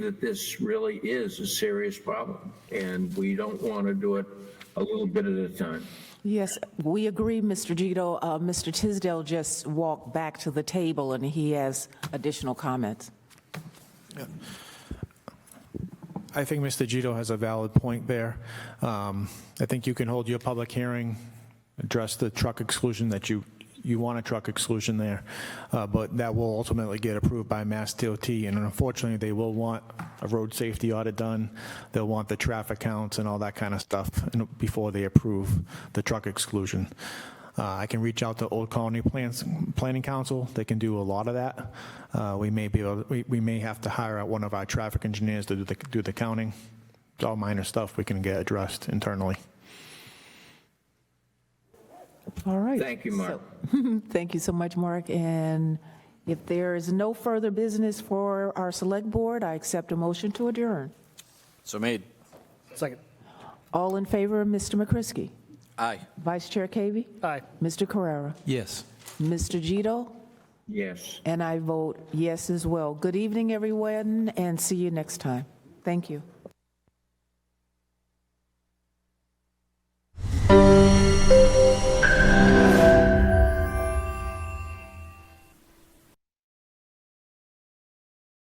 that this really is a serious problem, and we don't want to do it a little bit at a time. Yes, we agree, Mr. Gito. Uh, Mr. Tisdale just walked back to the table, and he has additional comments. I think Mr. Gito has a valid point there. Um, I think you can hold your public hearing, address the truck exclusion that you, you want a truck exclusion there, uh, but that will ultimately get approved by Mass DOT, and unfortunately, they will want a road safety audit done, they'll want the traffic counts and all that kind of stuff and before they approve the truck exclusion. Uh, I can reach out to Old Colony Plans, Planning Council, they can do a lot of that. Uh, we may be, able, we, we may have to hire out one of our traffic engineers to do the, do the counting. It's all minor stuff we can get addressed internally. All right. Thank you, Mark. Thank you so much, Mark. And if there is no further business for our Select Board, I accept a motion to adjourn. So made. Second. All in favor of Mr. McCrisky? Aye. Vice Chair Cavy? Aye. Mr. Carrera? Yes. Mr. Gito? Yes. And I vote yes as well. Good evening, everyone, and see you next time. Thank you.